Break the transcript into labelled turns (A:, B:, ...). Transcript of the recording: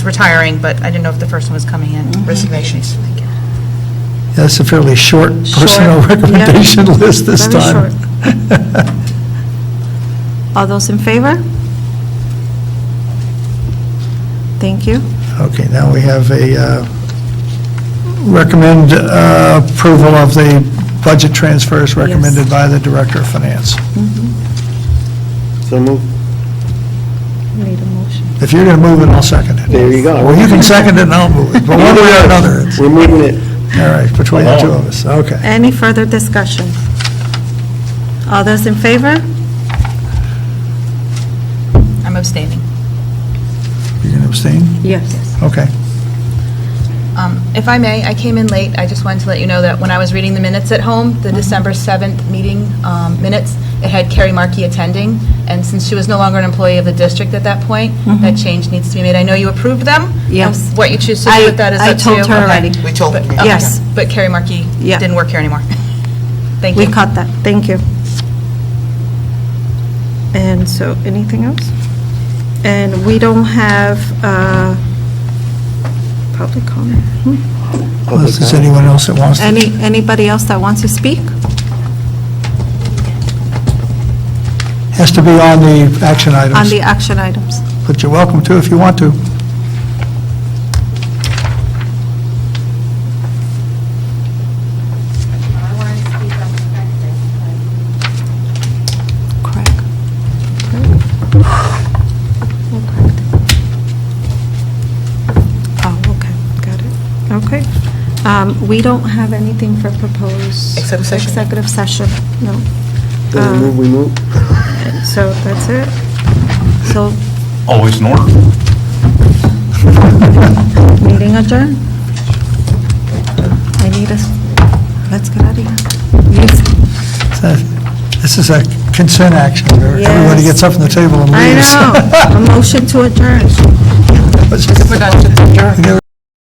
A: retiring, but I didn't know if the first one was coming
B: Mm-hmm.
A: in, resignations.
C: That's a fairly short personnel
B: Short, yeah.
C: recommendation list this
B: Very
C: time.
B: All those in favor? Thank you.
C: Okay, now we have a, uh, recommend uh, approval of the budget transfers recommended by the Director of Finance.
D: So move.
B: Need a motion.
C: If you're going to move it, I'll second it.
D: There you go.
C: Well, you can second it and I'll move it, but one way or another, it's,
D: We're moving it.
C: all right, between the two of us, okay.
B: Any further discussion? All those in favor?
A: I'm abstaining.
C: You're going to abstain?
B: Yes.
C: Okay.
A: Um, If I may, I came in late, I just wanted to let you know that when I was reading the minutes at home,
B: Mm-hmm.
A: the December 7th meeting um, minutes, it had Carrie Markey attending, and since she was no longer an employee of the district at that point, that change needs to be made. I know you approved them. and
B: Mm-hmm. Yes.
A: What you choose to
B: I-
A: do with that is
B: I
A: up to you.
B: told her
A: Okay.
B: already.
E: We told
A: But-
E: them.
A: okay.
B: Yes.
A: But Carrie Markey
B: Yeah.
A: didn't work here anymore. Thank you.
B: We caught that, thank you. And so, anything else? And we don't have uh, public comment. Hmm.
C: Unless there's anyone else that wants to.
B: Any, anybody else that wants to speak?
C: Has to be on the action
B: On the
C: items,
B: action items.
C: but you're welcome to if you want to.
F: I wanted to speak on the fact that, uh,
B: Craig. Oh, okay, got it. Okay. Um, We don't have anything for proposed.
A: Executive session.
B: Executive session, no.
C: Uh,
D: We move, we move.
B: So that's it. So
G: Always in order.
B: meeting adjourned. I need us, let's get out of here. Yes.
C: So, Uh, This is a consent action, where everybody
B: Yes.
C: gets up from the table and
B: I
C: leaves.
B: know. A motion to adjourn.
C: know.